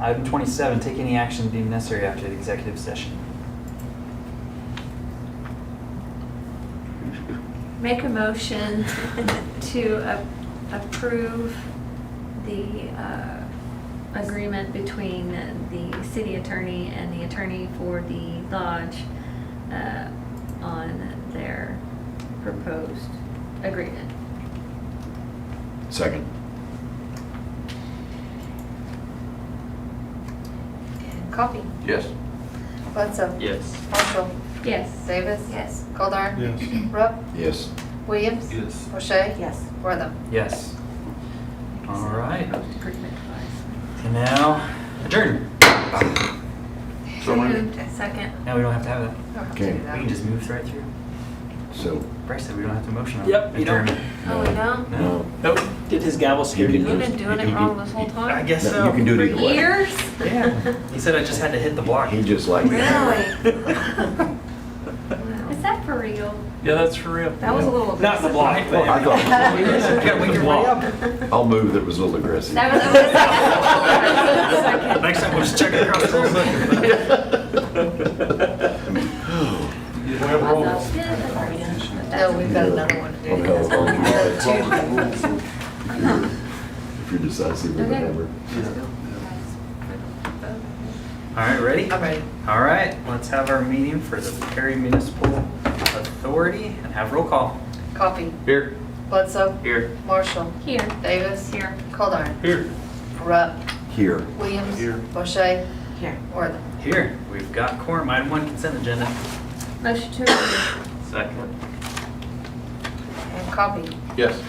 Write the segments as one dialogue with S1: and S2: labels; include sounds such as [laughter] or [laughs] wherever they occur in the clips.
S1: Item twenty-seven, take any action deemed necessary after the executive session.
S2: Make a motion to a- approve the uh, agreement between the city attorney and the attorney for the lodge uh, on their proposed agreement.
S3: Second.
S4: And Coffee.
S3: Yes.
S4: Bledsoe.
S5: Yes.
S4: Marshall.
S2: Yes.
S4: Davis.
S2: Yes.
S4: Goldar.
S6: Yes.
S4: Rupp.
S3: Yes.
S4: Williams.
S6: Yes.
S4: O'Shea.
S7: Yes.
S4: Wortham.
S1: Yes. All right.
S2: Proposed agreement was.
S1: And now adjourn.
S3: So moved.
S2: Second.
S1: Now we don't have to have that.
S4: Don't have to do
S3: Okay.
S4: that.
S1: We can just move right through.
S3: So. uh,
S1: Bryce said we don't have to motion on
S5: Yep, you don't.
S1: adjournment.
S2: Oh, we don't?
S3: No.
S5: Nope, did his gavel scare
S3: You
S5: you?
S3: can
S2: We've been doing it wrong this whole time.
S5: I guess
S3: No,
S5: so.
S3: You can do
S2: For
S3: it either way.
S2: years?
S1: Yeah. He said I just had to hit the block.
S3: He just liked it.
S2: Really? [laughs] Is that for real?
S5: [laughs]
S2: [laughs]
S5: Yeah, that's for real.
S2: That was a little.
S5: Not the block, but.
S3: I thought it was
S5: [laughs]
S3: a
S5: Yeah, we can re-up.
S3: I'll move that was a little aggressive.
S2: That was- that was-
S5: Next time, we'll just check it across the
S6: We have rolls.
S4: No, we've got another one to do.
S3: Okay.
S4: That's what we have to do.
S3: If you're decisive or
S2: Okay.
S3: whatever.
S1: All right, ready?
S4: I'm ready.
S1: All right, let's have our meeting for the Perry Municipal Authority and have roll call.
S4: Coffee.
S5: Here.
S4: Bledsoe.
S5: Here.
S4: Marshall.
S2: Here.
S4: Davis.
S2: Here.
S4: Goldar.
S5: Here.
S4: Rupp.
S3: Here.
S4: Williams.
S6: Here.
S4: O'Shea.
S7: Here.
S4: Wortham.
S1: Here, we've got quorum, item one consent agenda.
S2: Motion to approve.
S5: Second.
S4: And Coffee.
S3: Yes.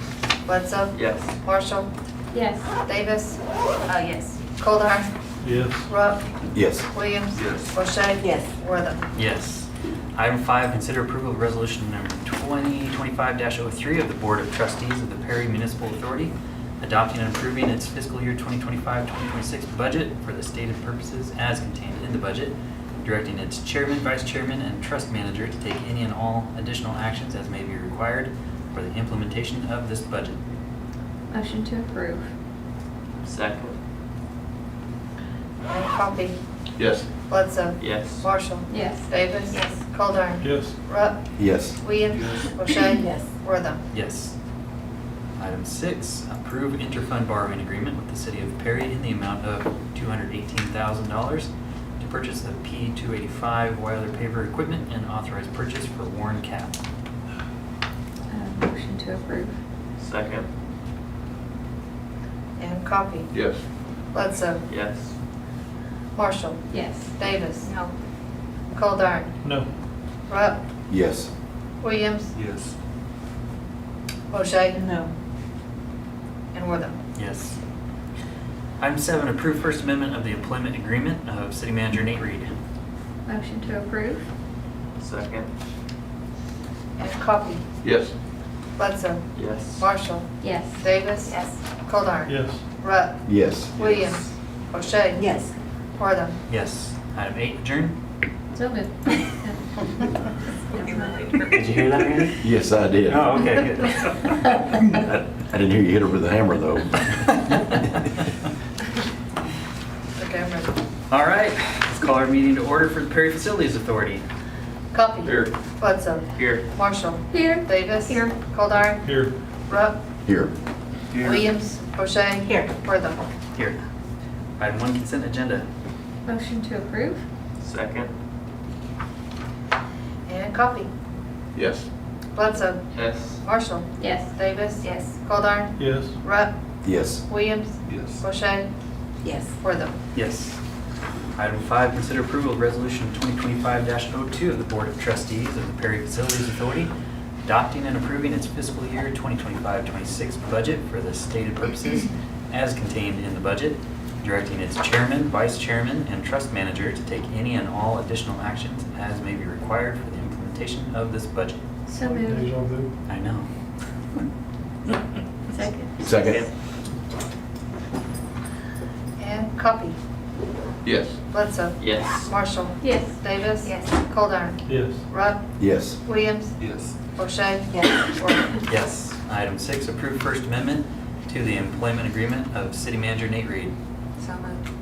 S4: Bledsoe.
S5: Yes.
S4: Marshall.
S2: Yes.
S4: Davis.
S2: Oh, yes.
S4: Goldar.
S6: Yes.
S4: Rupp.
S3: Yes.
S4: Williams.
S5: Yes.
S4: O'Shea.
S7: Yes.
S4: Wortham.
S1: Yes. Item five, consider approval of resolution number 2025-03 of the Board of Trustees of the Perry Municipal Authority adopting and approving its fiscal year 2025-2026 budget for the stated purposes as contained in the budget, directing its chairman, vice chairman, and trust manager to take any and all additional actions as may be required for the implementation of this budget.
S2: Motion to approve.
S5: Second.
S4: And Coffee.
S3: Yes.
S4: Bledsoe.
S5: Yes.
S4: Marshall.
S2: Yes.
S4: Davis.
S2: Yes.
S4: Goldar.
S6: Yes.
S4: Rupp.
S3: Yes.
S4: Williams.
S6: Yes.
S4: O'Shea.
S7: Yes.
S4: Wortham.
S1: Yes. Item six, approve interfund borrowing agreement with the city of Perry in the amount of $218,000 to purchase the P-285 Wilder paver equipment and authorized purchase for Warren Cap.
S2: Uh, Motion to approve.
S5: Second.
S4: And Coffee.
S3: Yes.
S4: Bledsoe.
S5: Yes.
S4: Marshall.
S2: Yes.
S4: Davis.
S2: No.
S4: Goldar.
S6: No.
S4: Rupp.
S3: Yes.
S4: Williams.
S6: Yes.
S4: O'Shea.
S7: No.
S4: And Wortham.
S1: Yes. Item seven, approve First Amendment of the employment agreement of city manager Nate Reed.
S2: Motion to approve.
S5: Second.
S4: And Coffee.
S3: Yes.
S4: Bledsoe.
S5: Yes.
S4: Marshall.
S2: Yes.
S4: Davis. Yes. Goldar.
S6: Yes.
S4: Rupp.
S3: Yes.
S4: Williams. O'Shea.
S7: Yes.
S4: Wortham.
S1: Yes. Item eight, adjourn. [laughs]
S2: So good. [laughs]
S1: Did you hear that, Randy?
S3: Yes, I did.
S1: Oh,
S3: I
S1: okay, good.
S3: didn't hear you hit her with a hammer, though.
S4: Okay, I'm ready.
S1: All right, let's call our meeting to order for the Perry Facilities Authority.
S4: Coffee.
S5: Here.
S4: Bledsoe.
S5: Here.
S4: Marshall.
S2: [laughs] Here.
S4: Davis.
S2: Here.
S4: Goldar.
S6: Here.
S4: Rupp.
S3: Here.
S4: Williams. O'Shea.
S7: Here.
S4: Wortham.
S1: Here. Item one consent agenda.
S2: Motion to approve.
S5: Second.
S4: And Coffee.
S3: Yes.
S4: Bledsoe.
S5: Yes.
S4: Marshall.
S2: Yes.
S4: Davis. Yes. Goldar.
S6: Yes.
S4: Rupp.
S3: Yes.
S4: Williams.
S6: Yes.
S4: O'Shea.
S7: Yes.
S4: Wortham.
S1: Yes. Item five, consider approval of resolution 2025-02 of the Board of Trustees of the Perry Facilities Authority adopting and approving its fiscal year 2025-26 budget for the stated purposes as contained in the budget, directing its chairman, vice chairman, and trust manager to take any and all additional actions as may be required for the implementation of this budget.
S2: So moved.
S6: Deja vu.
S1: I know.
S2: Second.
S3: Second.
S4: And Coffee.
S3: Yes.
S4: Bledsoe.
S5: Yes.
S4: Marshall.
S2: Yes.
S4: Davis. Yes. Goldar.
S6: Yes.
S4: Rupp.
S3: Yes.
S4: Williams.
S6: Yes.
S4: O'Shea.
S7: Yes.
S4: Wortham.
S1: Yes. Item six, approve First Amendment to the employment agreement of city manager Nate Reed.
S4: So moved.